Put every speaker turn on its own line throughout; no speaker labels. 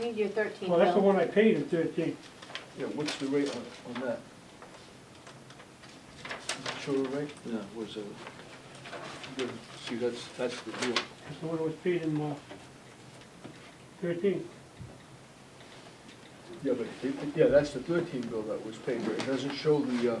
need your thirteen
Well, that's the
bill.
one I paid in thirteen.
Yeah, what's the rate on, on that? Insurer rate? Yeah, what's it? Good. See, that's, that's the deal.
That's the one that was paid in, uh, thirteen.
Yeah, but, it- it- yeah, that's the thirteen bill that was paid, but it doesn't show the, uh,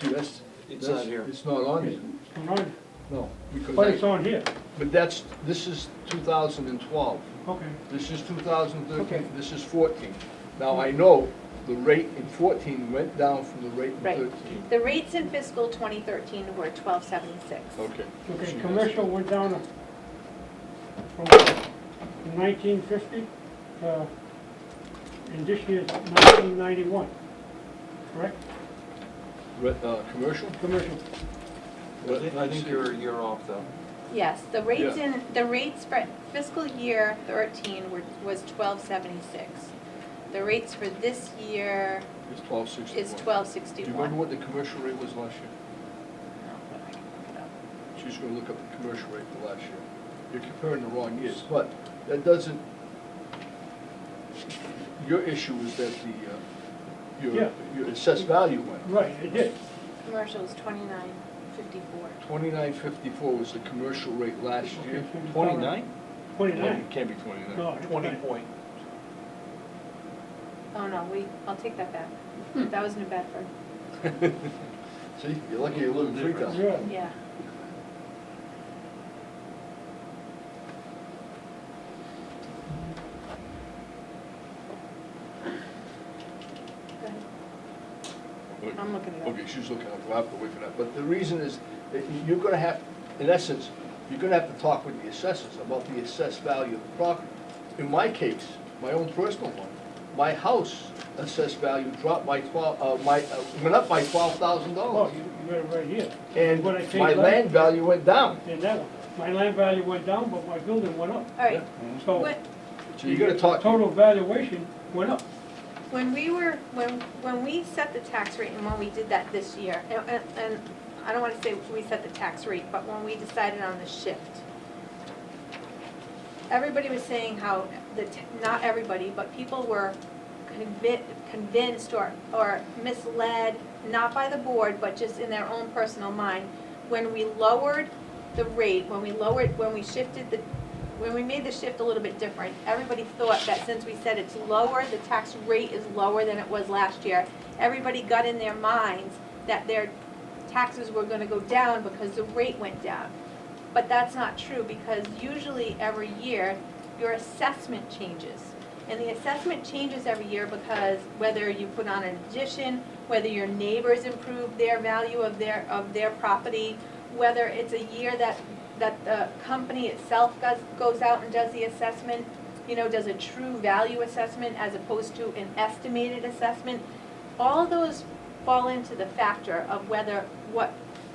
see, that's.
It's
that's-
not here.
It's not on here,
It's not on-
no,
But it's
because,
on here.
but that's, this is two thousand and twelve.
Okay.
This is 2013,
Okay.
this is 14. Now, I know the rate in 14 went down from the rate in
Right.
13.
The rates in fiscal twenty thirteen were twelve seventy-six.
Okay.
Okay,
She
commercial went down uh, to- from nineteen fifty, uh, and this year's nineteen ninety-one, correct?
does. Re- uh, Commercial?
Commercial,
I thi- I think you're, you're off though.
Yes, the rates
Yeah.
in, the rates for fiscal year thirteen were, was twelve seventy-six. The rates for this year
It's 1261.
is twelve
Do you
sixty-one.
remember what the commercial rate was last year? She's gonna look up the commercial rate for last year. You're comparing the wrong years, but that doesn't, your issue was that the, uh,
Yeah.
your, your assessed value went up.
right, it did.
Commercial is twenty-nine fifty-four.
2954 was the commercial rate last
Okay,
year.
so it's
Twenty-nine?
Twenty-nine.
Can't be 29.
No, it's
Twenty
not.
point.
Oh, no, we, I'll take that back.
Hmm.
That was New Bedford,
See, you're lucky you live in Freetown.
Yeah,
yeah. Go ahead. I'm looking it up.
Okay, she's looking up, we'll have to wait for that. But the reason is, that you're gonna have, in essence, you're gonna have to talk with the assessors about the assessed value of the property. In my case, my own personal one, my house assessed value dropped by twelve, uh, my, uh, went up by twelve thousand
oh,
dollars.
you, you got it right here.
And
What I paid
my
last-
land value went down.
And that one, my land value went down, but my building went up,
All right,
Mm-hmm.
so.
what,
So you're gonna talk.
Total valuation went up.
When we were, when, when we set the tax rate and when we did that this year, and, and- and I don't wanna say we set the tax rate, but when we decided on the shift, everybody was saying how, the, t- not everybody, but people were convi- convinced or, or misled, not by the board, but just in their own personal mind, when we lowered the rate, when we lowered, when we shifted the, when we made the shift a little bit different, everybody thought that since we said it's lower, the tax rate is lower than it was last year, everybody got in their minds that their taxes were gonna go down because the rate went down. But that's not true, because usually every year, your assessment changes. And the assessment changes every year because whether you put on an addition, whether your neighbors improve their value of their, of their property, whether it's a year that, that the company itself goes, goes out and does the assessment, you know, does a true value assessment as opposed to an estimated assessment. All those fall into the factor of whether, what,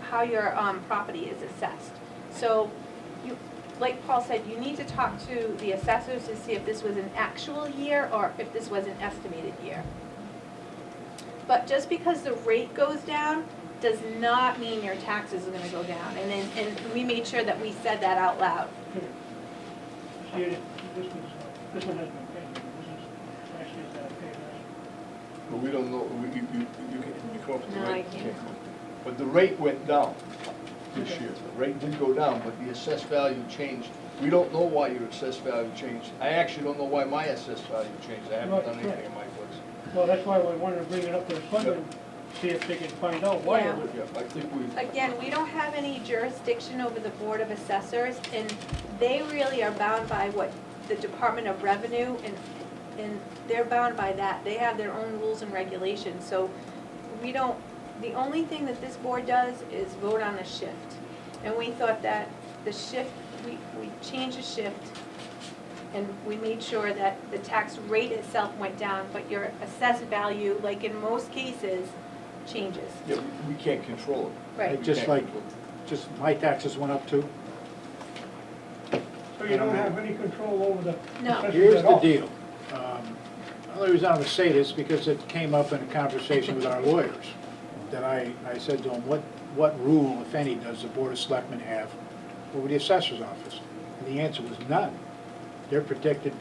how your, um, property is assessed. So you, like Paul said, you need to talk to the assessors to see if this was an actual year or if this was an estimated year. But just because the rate goes down does not mean your taxes are gonna go down. And then, and we made sure that we said that out loud.
See, this is, this one has been paid, this is, actually, it's not paid, right?
But we don't know, we- you, you, you can, you come up with the
No,
rate.
I
You
can't.
come up. But the rate went down this
Okay.
year. The rate did go down, but the assessed value changed. We don't know why your assessed value changed. I actually don't know why my assessed value changed. I haven't
Right,
done
right.
anything in my books.
Well, that's why we wanted to bring it up to the selectmen, see if they can find out why it
Yeah.
was.
Yeah, I think we.
Again, we don't have any jurisdiction over the Board of Assessors, and they really are bound by what the Department of Revenue, and, and they're bound by that. They have their own rules and regulations, so we don't, the only thing that this board does is vote on the shift. And we thought that the shift, we, we changed the shift, and we made sure that the tax rate itself went down, but your assessed value, like in most cases, changes.
Yeah, we we can't control it.
Right.
We
Just
can't
like-
control it.
Just, my taxes went up too.
So you don't have any control over the.
No.
assessors
Here's
at
the
all.
deal. Um, The only reason I'm gonna say this, because it came up in a conversation with our lawyers, that I, I said to them, what, what rule, if any, does the Board of Selectmen have over the assessor's office? And the answer was none. they're protected